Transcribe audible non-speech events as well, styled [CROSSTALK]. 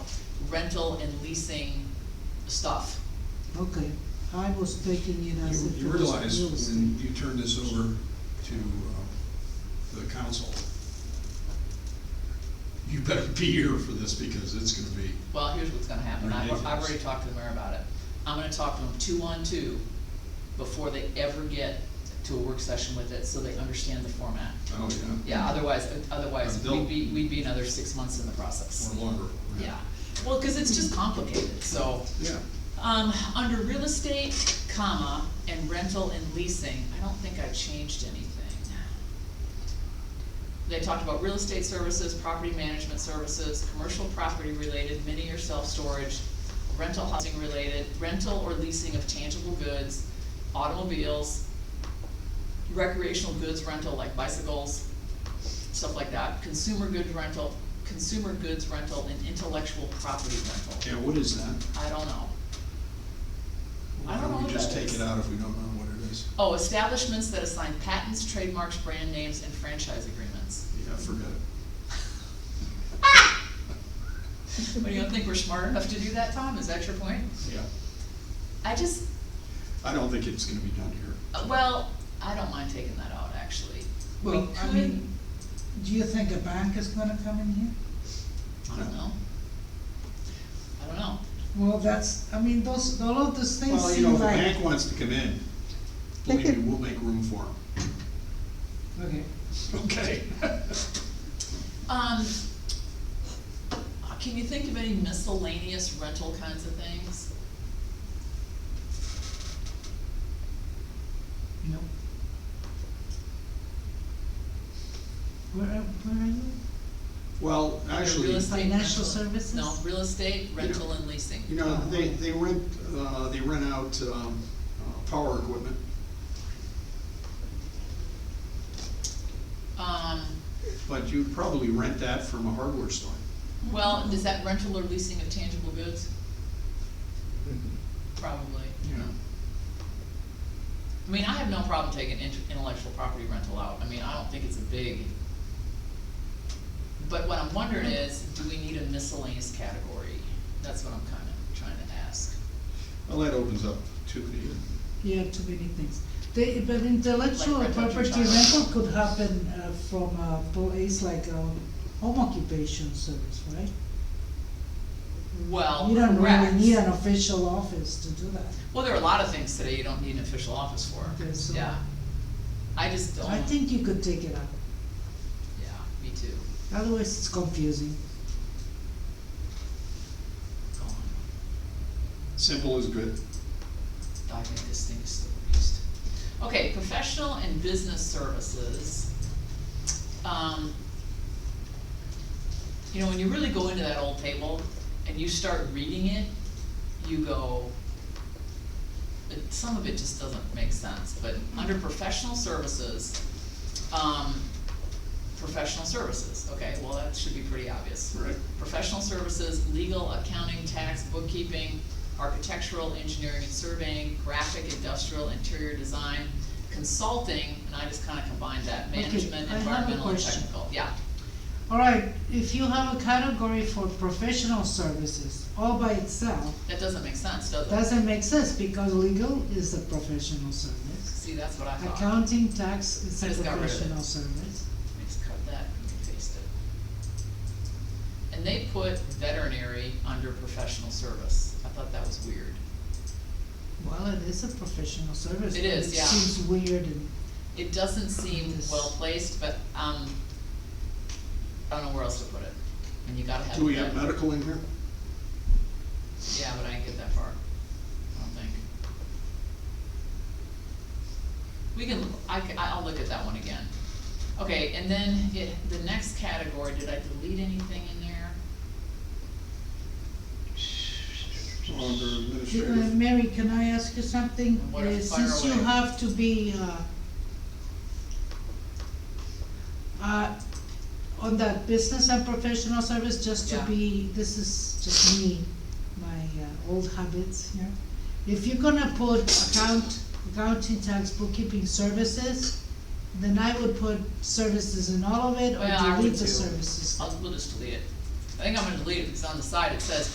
rental and leasing stuff. Okay, I was taking it as You if it you was real realize when estate. you turn this over to um, the council, you better be here for this because it's gonna be, Well, here's what's gonna happen, I've, I've Ridiculous. already talked to the mayor about it. I'm gonna talk to them two-on-two before they ever get to a work session with it, so they understand the format. oh yeah, Yeah, otherwise, otherwise, And they'll- we'd be, we'd be another six months in the process. or longer. Yeah, well, cause it's just complicated, so. Yeah, Um, under real estate, comma, and rental and leasing, I don't think I changed anything. They talked about real estate services, property management services, commercial property related, mini or self-storage, rental housing related, rental or leasing of tangible goods, automobiles, recreational goods rental like bicycles, stuff like that, consumer goods rental, consumer goods rental, and intellectual property rental. yeah, what is that? I don't know. I Why don't know don't what we just that take is. it out if we don't know what it is? Oh, establishments that assign patents, trademarks, brand names, and franchise agreements. Yeah, forget it. What, you don't think we're smart enough to do that, Tom? Is that your point? Yeah, I just, I don't think it's gonna be done here. uh, well, I don't mind taking that out, actually. We Well, I could- mean, do you think a bank is gonna come in here? I don't know. I don't know. Well, that's, I mean, those, all of those things Well, you know, seem if the like, bank wants to come in, They believe me, could- we'll make room for okay, them. [LAUGHS] [LAUGHS] Okay. Um, uh, can you think of any miscellaneous rental kinds of things? no. Where, are- where are you? Well, actually. Real estate rental- Financial services? No, real estate, rental, and leasing. You know, they, they rent, uh, they rent out, um, uh, power equipment. Um, But you'd probably rent that from a hardware store. Well, is that rental or leasing of tangible goods? Probably. You know, I mean, I have no problem taking int- intellectual property rental out, I mean, I don't think it's a big. But what I'm wondering is, do we need a miscellaneous category? That's what I'm kinda trying to ask. well, that opens up too many. Yeah, too many things. They, but intellectual Like rental to property child. rental could happen uh, from a place like a home occupation service, right? Well, You don't really Oh, correct. need an official office to do that. Well, there are a lot of things today you don't need an official office for, Okay, so- yeah. I just don't, I yeah, think you could take it out, me too. otherwise it's confusing. Gone. Simple is good. I think this thing is still abused. Okay, professional and business services. Um, You know, when you really go into that old table and you start reading it, you go, it- some of it just doesn't make sense, but under professional services, um, professional services, okay, well, that should be pretty obvious Right. professional services, legal, accounting, tax, bookkeeping, architectural, engineering and surveying, graphic, industrial, interior design, consulting, and I just kinda combined that, Okay, management, I have a environmental and question. technical, yeah. All right, if you have a category for professional services all by itself, That doesn't make sense, does it? doesn't make sense because legal is a professional service. See, that's what I thought. Accounting tax is I a just got rid of it. professional service. Just cut that and paste it. And they put veterinary under professional service. I thought that was weird. Well, it is a professional service. It but is, yeah. It seems weird and It doesn't seem This- well placed, but, um, I don't know where else to put it. And you gotta have. Do we have that. medical in here? Yeah, but I didn't get that far, I don't think. We can, I, c- I'll look at that one again. Okay, and then it, the next category, did I delete anything in there? Under Uh, administrative. Mary, can I ask you something? What if- Uh, fire Since you away. have to be, uh, uh, on that business and professional service, just to Yeah. be, this is just me, my uh, old habits here. If you're gonna put account, accounting, tax, bookkeeping services, then I would put services in all of it or Well, I would delete the too. services. I'll, we'll just delete it. I think I'm gonna delete it, because on the side it says